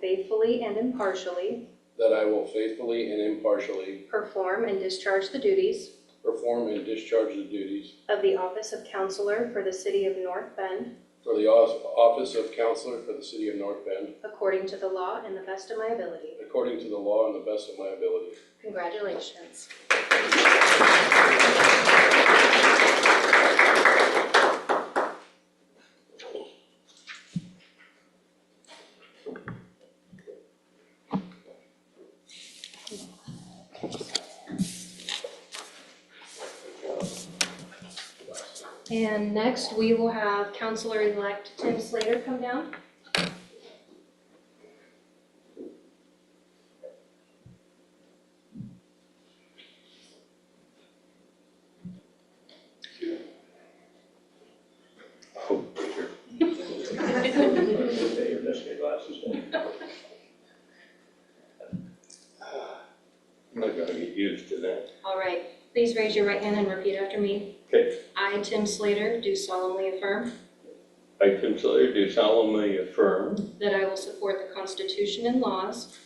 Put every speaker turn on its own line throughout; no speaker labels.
faithfully and impartially
that I will faithfully and impartially
perform and discharge the duties
perform and discharge the duties
of the office of counselor for the city of North Bend
for the os- office of counselor for the city of North Bend
according to the law and the best of my ability.
according to the law and the best of my ability.
Congratulations. And next, we will have Counselor-elect Tim Slater come down.
Okay, your best day glasses.
I'm not gonna get used to that.
All right, please raise your right hand and repeat after me.
Okay,
I, Tim Slater, do solemnly affirm
I, Tim Slater, do solemnly affirm
that I will support the Constitution and laws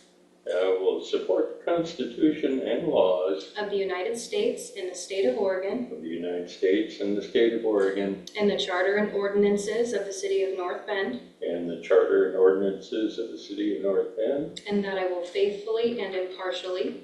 that I will support the Constitution and laws
of the United States and the state of Oregon
of the United States and the state of Oregon
and the charter and ordinances of the city of North Bend,
and the charter and ordinances of the city of North Bend,
and that I will faithfully and impartially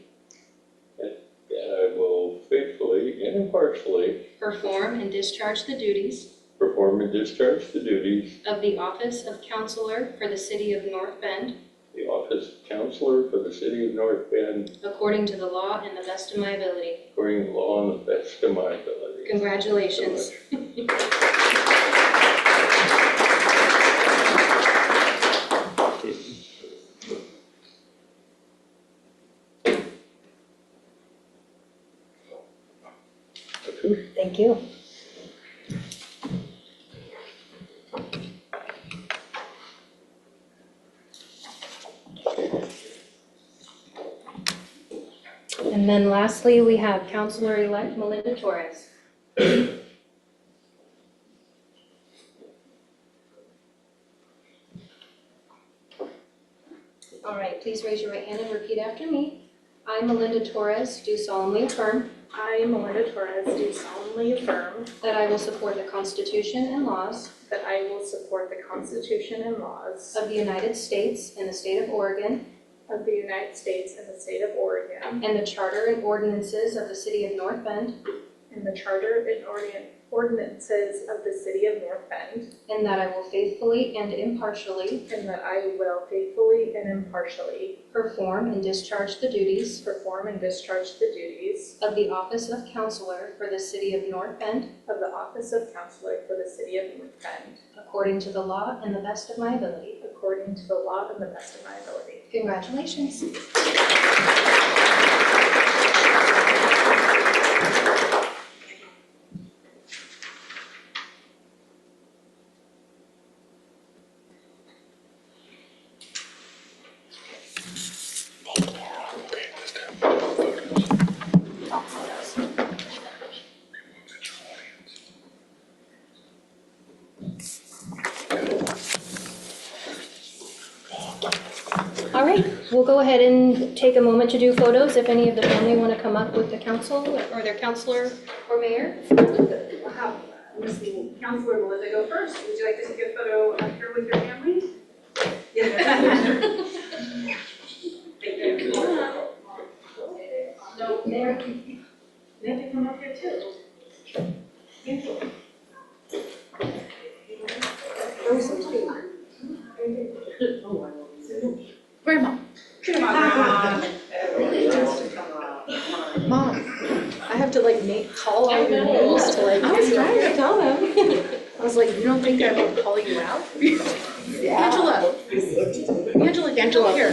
that I will faithfully and impartially
perform and discharge the duties
perform and discharge the duties
of the office of counselor for the city of North Bend
of the office of counselor for the city of North Bend
according to the law and the best of my ability.
according to law and the best of my ability.
Congratulations.
Thank you.
And then lastly, we have Counselor-elect Melinda Torres. All right, please raise your right hand and repeat after me. I, Melinda Torres, do solemnly affirm
I, Melinda Torres, do solemnly affirm
that I will support the Constitution and laws
that I will support the Constitution and laws
of the United States and the state of Oregon
of the United States and the state of Oregon,
and the charter and ordinances of the city of North Bend,
and the charter and ordin- ordinances of the city of North Bend,
and that I will faithfully and impartially
and that I will faithfully and impartially
perform and discharge the duties
perform and discharge the duties
of the office of counselor for the city of North Bend
of the office of counselor for the city of North Bend,
according to the law and the best of my ability.
according to the law and the best of my ability.
Congratulations. All right, we'll go ahead and take a moment to do photos if any of the family want to come up with the council or their counselor or mayor.
We'll have uh, Ms. Counselor Melinda go first. Would you like to take a photo up here with your family? Yeah. Thank you. No, Mayor, they have to come up here too. Angela. Where's the two?
Grandma,
Come on, Grandma.
mom, I have to like make, call all your names to like.
I was
trying to tell them.
I was like, you don't think I would call you out?
Angela. Angela, Angela, here.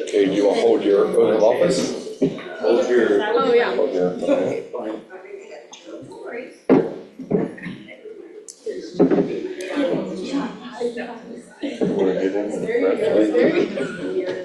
Okay, you want to hold your oath of office?
Hold your
Oh, yeah.
Hold your- Wanna get in and congratulate?
There you go.